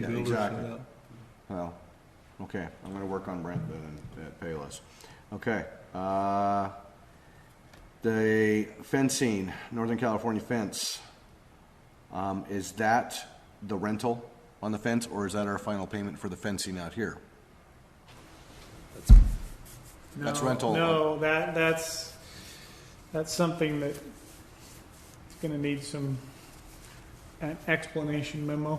Yeah, builders set exactly. up. Well, okay, I'm gonna work on Brent then, at Payless. Okay, uh, the fencing, Northern California fence, um, is that the rental on the fence, or is that our final payment for the fencing out here? That's No, rental. No, that, that's, that's something that it's gonna need some, an explanation memo.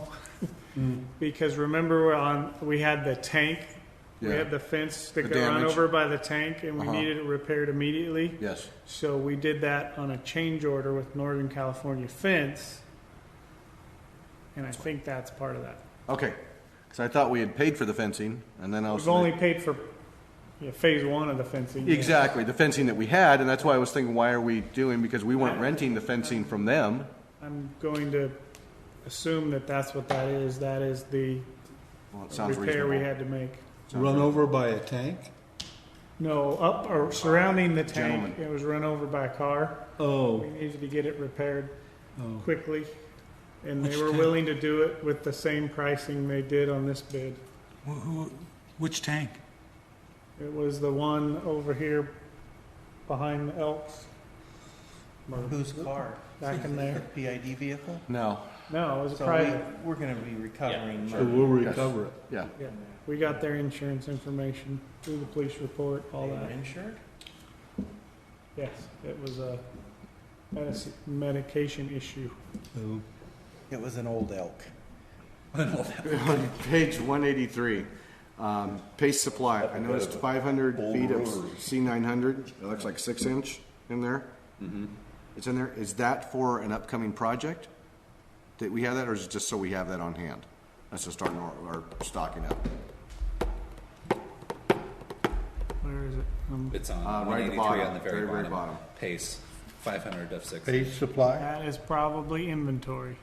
Mm. Because remember on, we had the tank, we Yeah. had the fence that The got run damage. over by the tank and we Uh-huh. needed it repaired immediately. Yes, So we did that on a change order with Northern California Fence. And I think that's part of that. okay, because I thought we had paid for the fencing, and then I was. We've only paid for, yeah, phase one of the fencing. yeah. Exactly, the fencing that we had, and that's why I was thinking, why are we doing, because we weren't renting the fencing from them. I'm going to assume that that's what that is. That is the Well, it sounds repair reasonable. we had to make. Sounds Run reasonable. over by a tank? No, up or surrounding the tank, Gentlemen. it was run over by a car. We Oh, needed to get it repaired oh. quickly. And they Which were tank? willing to do it with the same pricing they did on this bid. Who- Who, which tank? It was the one over here behind the Elks. or Whose car? Back in The there. PID vehicle? No, No, it was a So we, private. we're gonna be recovering So money. we'll recover it. yeah. Yeah, we got their insurance information through the police report, all They were that. Insured? Yes, it was a medis- medication issue. Oh. It was an old elk. On page one eighty-three, um, paste supply, I noticed five hundred feet of C nine hundred, it looks like six inch in there. Mm-hmm. It's in there, is that for an upcoming project? That we have that, or is it just so we have that on hand? That's just our, nor- our stocking up. Where is it? Um, It's on Uh, right at the 183 bottom, on the very, very, very bottom. Pace 500 of 6. Page supply? That is probably inventory.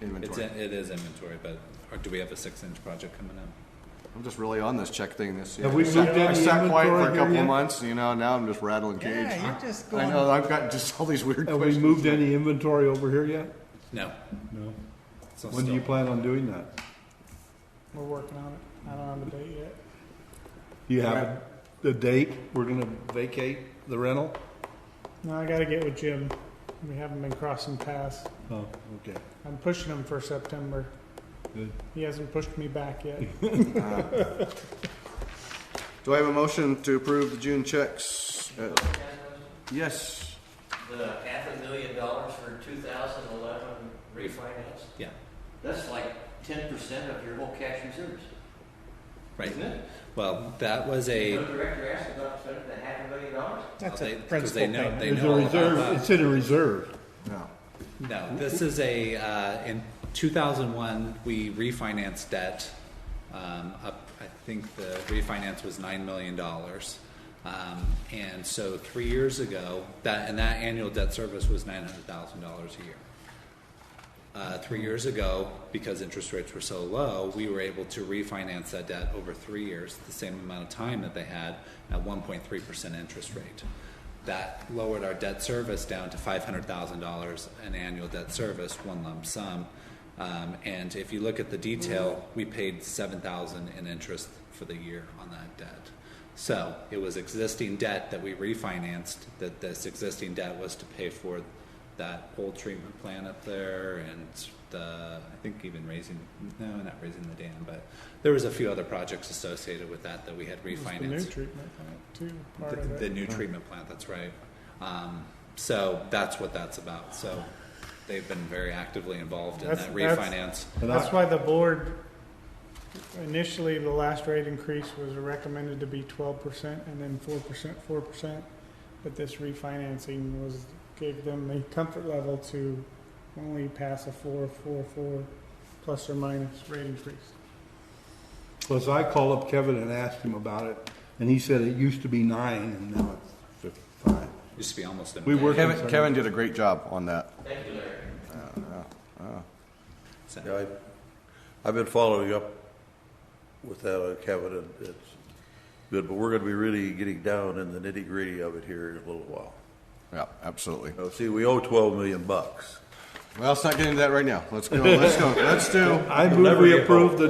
It's Inventory. in, it is inventory, but or do we have a six inch project coming up? I'm just really on this check thing this year. Have we I sat- moved any I sat inventory quiet for a here couple of yet? months, you know, now I'm just rattling cage. Yeah, you're just I going, know, I've got just all these weird Have we questions. moved any inventory over here yet? No. No. So When do you still- plan on doing that? We're working on it. I don't have a date yet. Do you have a- the date we're gonna vacate the rental? No, I gotta get with Jim. We haven't been crossing paths. Oh, okay, I'm pushing him for September. good. He hasn't pushed me back yet. Do I have a motion to approve the June checks? Uh, Yes. The half a million dollars for 2011 refinance, Yeah. that's like 10% of your whole cash reserves, Right. isn't it? Well, that was The a. director asked about spending the half a million dollars? that's they- a 'cause principal they know- payment. they There's a know all about reserve, that. it's in a reserve. No. No, this is a. Uh, in 2001, we refinanced debt. Um, up, I think the refinance was nine million dollars. Um, and so three years ago, that and that annual debt service was nine hundred thousand dollars a year. Uh, three years ago, because interest rates were so low, we were able to refinance that debt over three years, the same amount of time that they had, at 1.3% interest rate. That lowered our debt service down to $500,000 an annual debt service, one lump sum. Um, and if you look at the detail, we paid 7,000 in interest for the year on that debt. So it was existing debt that we refinanced, that this existing debt was to pay for that old treatment plant up there and the, I think even raising, no, not raising the dam, but there was a few other projects associated with that that we had It's The new refinanced. treatment plant too, part The, of the it. new treatment plant, that's right. Um, so that's what that's about. So they've been very actively involved in That's- that that's- refinance. And That's I, why the board, initially, the last rate increase was recommended to be 12% and then 4%, 4%. But this refinancing was, gave them the comfort level to only pass a 4, 4, 4 plus or minus rate increase. plus I called up Kevin and asked him about it, and he said it used to be nine and now it's fifty-five. Used to be almost. We immediate. work- Kevin, Kevin did a great job on that. Thank you, Larry. So- Yeah, I, I've been following up with that on Kevin, and it's good, but we're gonna be really getting down in the nitty-gritty of it here in a little while. Yeah, absolutely. Now, see, we owe twelve million bucks. Well, let's not get into that right now. Let's go, let's go, let's do. I move we get approve the